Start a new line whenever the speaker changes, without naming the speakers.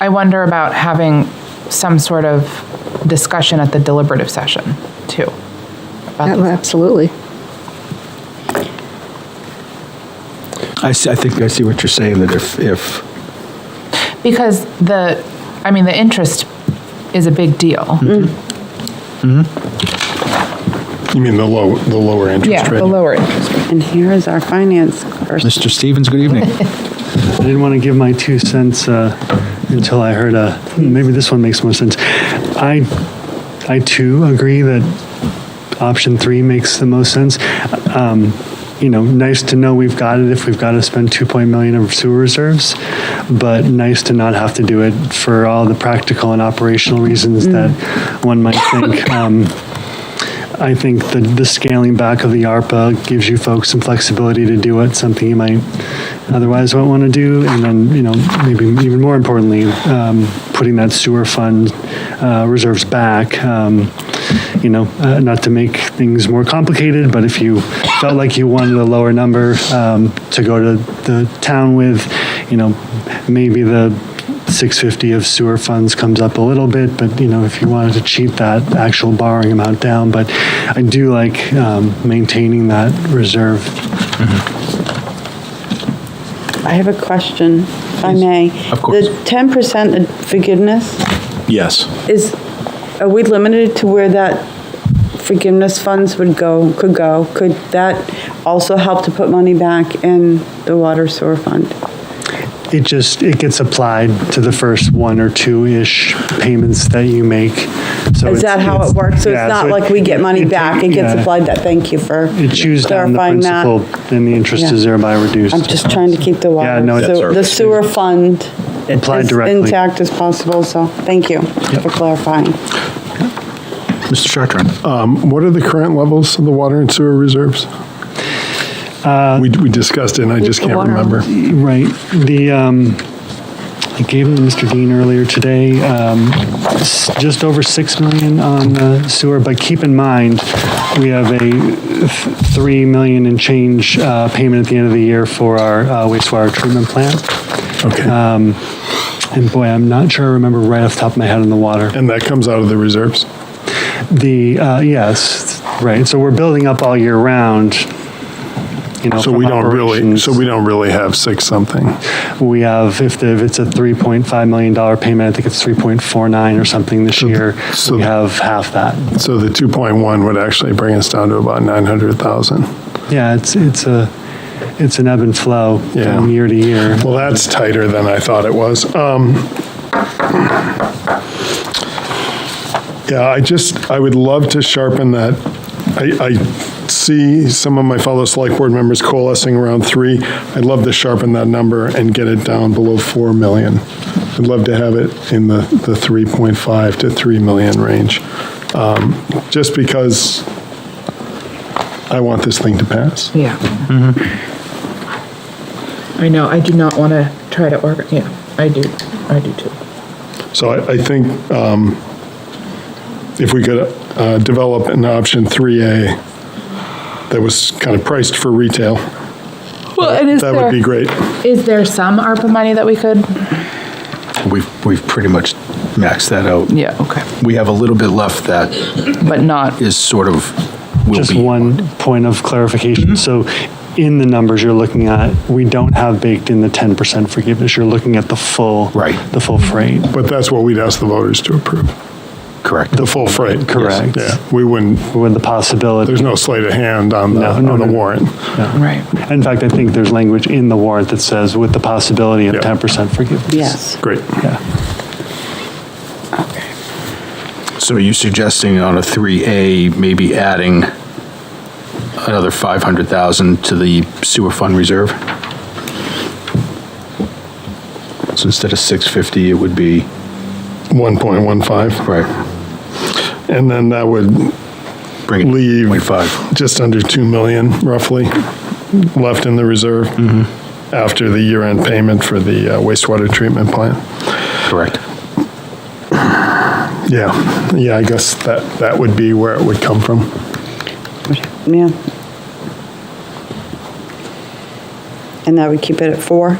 I wonder about having some sort of discussion at the deliberative session, too.
Yeah, Absolutely.
I, see- I think I see what you're saying, that if, if,
Because the, I mean, the interest is a big deal.
Mm-hmm. You mean the low, the lower interest
Yeah,
rate?
the lower interest.
And here is our finance person.
Mr. Stevens, good evening.
I didn't want to give my two cents uh, until I heard a, "Hmm, maybe this one makes more sense. I, I too agree that option three makes the most sense. Um, You know, nice to know we've got it if we've got to spend 2.0 million of sewer reserves, but nice to not have to do it for all the practical and operational reasons that one might think. Um, I think the, the scaling back of the ARPA gives you folks some flexibility to do it, something you might otherwise won't want to do. And then, you know, maybe even more importantly, um, putting that sewer fund uh, reserves back. Um, you know, uh, not to make things more complicated, but if you felt like you wanted a lower number um, to go to the town with, you know, maybe the 650 of sewer funds comes up a little bit, but, you know, if you wanted to cheat that actual borrowing amount down, but I do like um, maintaining that reserve.
I have a question, if I may.
Of course.
The 10% forgiveness,
Yes.
is, are we limited to where that forgiveness funds would go, could go? Could that also help to put money back in the water sewer fund?
It just, it gets applied to the first one or two-ish payments that you make. So
Is
it's-
that how
it's-
it works? So
yeah,
it's not
it-
like we get money
it-
back, it gets
yeah.
applied that, thank you for
It chews down the
clarifying that.
principal, and the interest is
Yeah.
thereby reduced.
I'm just trying to keep the water,
Yeah, no, it's-
so the sewer fund
Applied
as
directly.
intact as possible, so thank you for clarifying.
Mr. Chartran,
Um, what are the current levels of the water and sewer reserves?
Uh,
We, we discussed it, and I just can't remember.
Right. The, um, I gave them to Mr. Dean earlier today, um, s- just over 6 million on the sewer, but keep in mind, we have a th- 3 million and change uh, payment at the end of the year for our uh, wastewater treatment plant.
Okay.
Um,
And boy, I'm not sure I remember right off the top of my head on the water.
And that comes out of the reserves?
The, uh, yes, right, so we're building up all year round, you know.
So
from
we don't really,
operations.
so we don't really have six something.
We have, if the, if it's a $3.5 million payment, I think it's 3.49 or something this year,
so-
we have half that.
So the 2.1 would actually bring us down to about 900,000.
Yeah, it's, it's a, it's an ebb and flow
Yeah.
from year to year.
Well, that's tighter than I thought it was. Um, Yeah, I just, I would love to sharpen that. I, I see some of my fellow select board members coalescing around three. I'd love to sharpen that number and get it down below 4 million. I'd love to have it in the, the 3.5 to 3 million range, um, just because I want this thing to pass.
Yeah. Mm-hmm. I know, I do not want to try to org, yeah, I do, I do too.
So I, I think um, if we could uh, develop an option 3A that was kind of priced for retail,
Well, and is
that would be
there,
great.
is there some ARPA money that we could?
we've, we've pretty much maxed that out.
Yeah, okay.
We have a little bit left that
But not,
is sort of, will
Just
be.
one point of
Mm-hmm.
clarification. So in the numbers you're looking at, we don't have baked in the 10% forgiveness. You're looking at the full.
Right.
The full freight.
But that's what we'd ask the voters to approve,
Correct.
the full freight.
Correct.
Yeah, we wouldn't,
With the possibility.
there's no sleight of hand on the,
No, no,
on the
no.
warrant.
right,
In fact, I think there's language in the warrant that says with the possibility of
Yeah.
10% forgiveness.
Yes.
Great.
Yeah.
So are you suggesting on a 3A, maybe adding another 500,000 to the sewer fund reserve? So instead of 650, it would be,
1.15.
right,
And then that would
bring it
leave
to 0.5.
just under 2 million roughly left in the reserve
Mm-hmm.
after the year-end payment for the uh, wastewater treatment plant.
Correct.
Yeah, yeah, I guess that, that would be where it would come from.
Yeah. And that would keep it at four?